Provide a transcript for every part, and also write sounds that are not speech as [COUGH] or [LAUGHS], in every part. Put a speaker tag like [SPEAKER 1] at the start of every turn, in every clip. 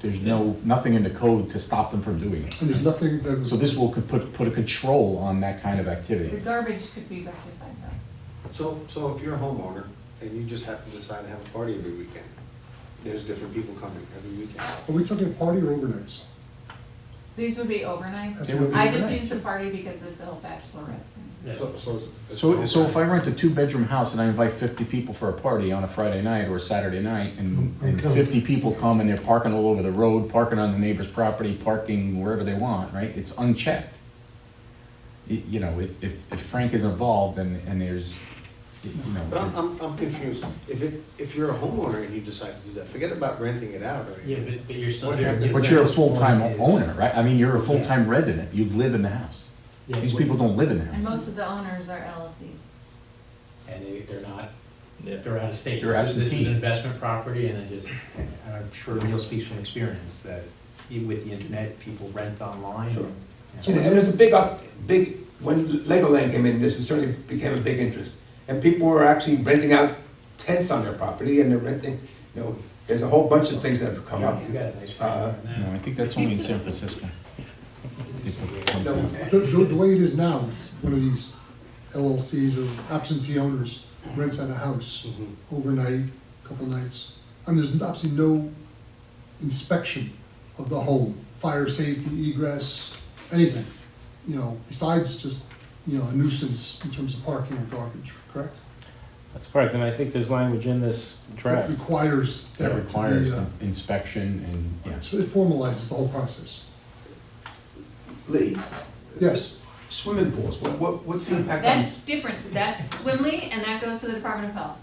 [SPEAKER 1] There's no, nothing in the code to stop them from doing it.
[SPEAKER 2] And there's nothing that.
[SPEAKER 1] So this will co- put, put a control on that kind of
[SPEAKER 3] The
[SPEAKER 1] activity.
[SPEAKER 3] garbage could be rectified though.
[SPEAKER 4] So, so if you're a homeowner and you just happen to decide to have a party every weekend, there's different people coming every weekend.
[SPEAKER 2] Are we talking party or overnights?
[SPEAKER 3] These would be overnight.
[SPEAKER 2] That's
[SPEAKER 1] They would
[SPEAKER 2] what-
[SPEAKER 3] I just
[SPEAKER 1] overnight.
[SPEAKER 3] used the party because of the whole bachelorette. thing.
[SPEAKER 5] Yeah.
[SPEAKER 4] So, so. it's-
[SPEAKER 1] So, so if I rent a two-bedroom house and I invite fifty people for a party on a Friday night or a Saturday night, and, and
[SPEAKER 2] Okay.
[SPEAKER 1] fifty people come and they're parking all over the road, parking on the neighbor's property, parking wherever they want, right? It's unchecked. Y- You know, if, if if Frank is involved and, and there's, you
[SPEAKER 4] But I'm,
[SPEAKER 1] know,
[SPEAKER 4] I'm, I'm confused. If it, if you're a homeowner and you decide to do that, forget about renting it out or anything.
[SPEAKER 5] Yeah, but, but you're still.
[SPEAKER 4] What happened-
[SPEAKER 1] but you're a full-time
[SPEAKER 5] Is-
[SPEAKER 1] owner, right? I mean, you're a full-time resident, you live in the house.
[SPEAKER 5] Yeah,
[SPEAKER 1] These
[SPEAKER 5] what-
[SPEAKER 1] people don't live in the
[SPEAKER 3] And
[SPEAKER 1] house.
[SPEAKER 3] most of the owners are LLCs.
[SPEAKER 5] And they, they're not,
[SPEAKER 6] Yeah.
[SPEAKER 5] they're out of state.
[SPEAKER 1] They're
[SPEAKER 5] This is- This is
[SPEAKER 1] absentee.
[SPEAKER 5] an investment property and it just, and I'm sure Neil speaks from experience that e- with the internet, people rent online.
[SPEAKER 6] Sure.
[SPEAKER 5] and-
[SPEAKER 6] And and there's a big up, big, when Legoland came in, this is certainly became a big interest. And people were actually renting out tents on their property and they're renting, you know, there's a whole bunch of things that have come up.
[SPEAKER 5] You got a nice
[SPEAKER 6] Uh,
[SPEAKER 5] frame
[SPEAKER 1] No, I
[SPEAKER 5] on
[SPEAKER 1] think that's only in San Francisco.
[SPEAKER 2] No, The, the, the way it is now, it's one of these LLCs or absentee owners rents out a house
[SPEAKER 4] Mhm.
[SPEAKER 1] Mm-hmm.
[SPEAKER 2] overnight, couple nights. And there's absolutely no inspection of the home, fire safety, egress, anything. You know, besides just, you know, a nuisance in terms of parking or garbage, correct?
[SPEAKER 7] That's correct, and I think there's language in this
[SPEAKER 2] That
[SPEAKER 7] draft.
[SPEAKER 2] requires that
[SPEAKER 1] That
[SPEAKER 2] to be,
[SPEAKER 1] requires
[SPEAKER 2] uh,
[SPEAKER 1] inspection and, yeah.
[SPEAKER 2] it's- It formalizes the whole process.
[SPEAKER 6] Lee,
[SPEAKER 2] Yes,
[SPEAKER 6] swimming pools, what, what, what's the impact on?
[SPEAKER 3] That's different. That's Swimley and that goes to the Department of Health.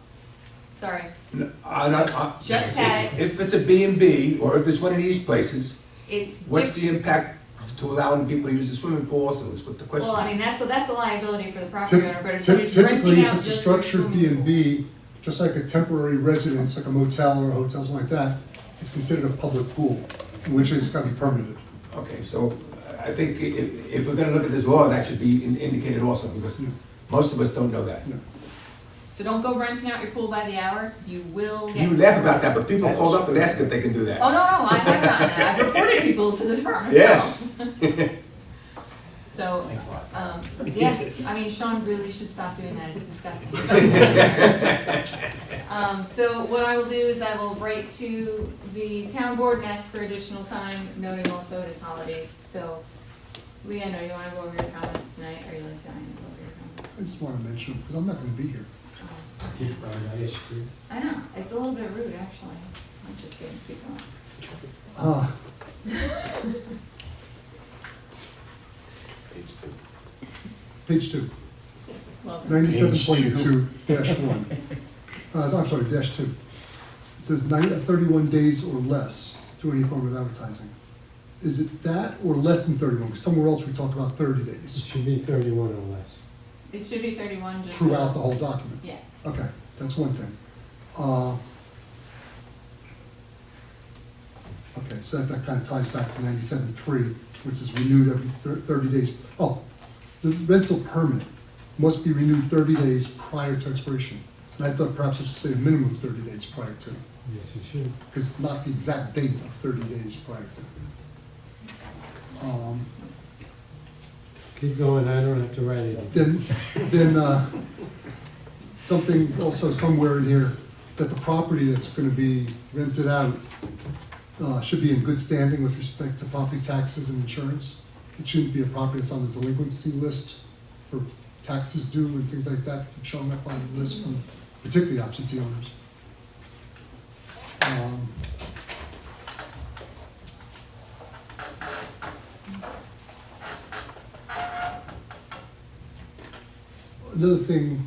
[SPEAKER 3] Sorry.
[SPEAKER 6] No, I, I.
[SPEAKER 3] Just had it.
[SPEAKER 6] If it's a B and B, or if it's one of these places,
[SPEAKER 3] It's.
[SPEAKER 6] what's
[SPEAKER 3] diff-
[SPEAKER 6] the impact to allowing people to use the swimming pool also is what the question is.
[SPEAKER 3] Well, I mean, that's, that's a liability for the property owner, but
[SPEAKER 2] Typ- typ-
[SPEAKER 3] if somebody's
[SPEAKER 2] typically,
[SPEAKER 3] renting
[SPEAKER 2] if
[SPEAKER 3] out
[SPEAKER 2] it's a
[SPEAKER 3] just. for
[SPEAKER 2] structured
[SPEAKER 3] swimming
[SPEAKER 2] B
[SPEAKER 3] pool-
[SPEAKER 2] and B, just like a temporary residence, like a motel or a hotel, something like that, it's considered a public pool, which is gotta be permitted.
[SPEAKER 6] Okay, so I think i- if, if we're gonna look at this law, that should be in- indicated also, because
[SPEAKER 2] Yeah.
[SPEAKER 6] most of us don't know that.
[SPEAKER 2] Yeah.
[SPEAKER 3] So don't go renting out your pool by the hour. You will. get-
[SPEAKER 6] You laugh about that, but people called up and asked if they can do that.
[SPEAKER 3] Oh, no, no, I have done that. I've reported people to the Department of Health.
[SPEAKER 6] Yes,
[SPEAKER 3] So,
[SPEAKER 5] Thanks a lot.
[SPEAKER 3] um,
[SPEAKER 5] [LAUGHS]
[SPEAKER 3] yeah, I mean, Sean really should stop doing that, it's disgusting. Um, so what I will do is I will write to the town board and ask for additional time, noting also it is holidays, so. Leanne, do you wanna go over your comments tonight, or you like dying to go over your comments?
[SPEAKER 2] I just wanna mention, because I'm not gonna be here.
[SPEAKER 3] Um,
[SPEAKER 5] that. He's probably not interested.
[SPEAKER 3] I know, it's a little bit rude, actually, I'm just gonna keep going.
[SPEAKER 2] Ah,
[SPEAKER 4] Page two.
[SPEAKER 2] page two,
[SPEAKER 3] Love it.
[SPEAKER 2] ninety-seven point two dash one. Uh, no, I'm sorry, dash two. It says nine, uh, thirty-one days or less through any form of advertising. Is it that or less than thirty-one? Because somewhere else we talk about thirty
[SPEAKER 8] It
[SPEAKER 2] days
[SPEAKER 8] should be thirty-one or less.
[SPEAKER 3] It should be thirty-one, just.
[SPEAKER 2] throughout the whole document.
[SPEAKER 3] Yeah,
[SPEAKER 2] Okay, that's one thing. Uh, Okay, so that- that kind of ties back to ninety-seven three, which is renewed every thir- thirty days. Oh, the rental permit must be renewed thirty days prior to expiration. And I thought perhaps I should say a minimum of thirty days prior to,
[SPEAKER 8] Yes, it should.
[SPEAKER 2] because it's not the exact date of thirty days prior to. Um,
[SPEAKER 8] Keep going, I don't have to write it.
[SPEAKER 2] then, then, uh, something also somewhere in here, that the property that's gonna be rented out, uh, should be in good standing with respect to property taxes and insurance. It shouldn't be a property that's on the delinquency list for taxes due and things like that, showing up on the list from particularly absentee owners. Um, Another thing,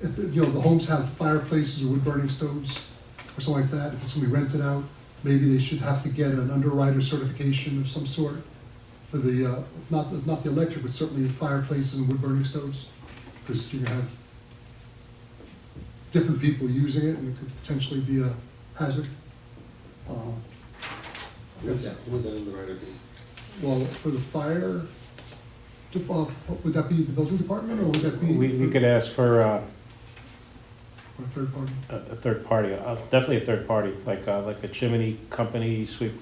[SPEAKER 2] if, you know, the homes have fireplaces or wood-burning stoves or something like that, if it's gonna be rented out, maybe they should have to get an underwriter certification of some sort for the, uh, if not, if not the electric, but certainly fireplaces and wood-burning stoves, because you're gonna have different people using it, and it could potentially be a hazard. Uh,
[SPEAKER 4] Would
[SPEAKER 2] That's-
[SPEAKER 4] that, would that underwriter be?
[SPEAKER 2] Well, for the fire, de- uh, would that be the building department, or would that be?
[SPEAKER 7] We, we could ask for uh,
[SPEAKER 2] Or a third party?
[SPEAKER 7] a, a third party, uh, definitely a third party, like, uh, like a chimney company, sweep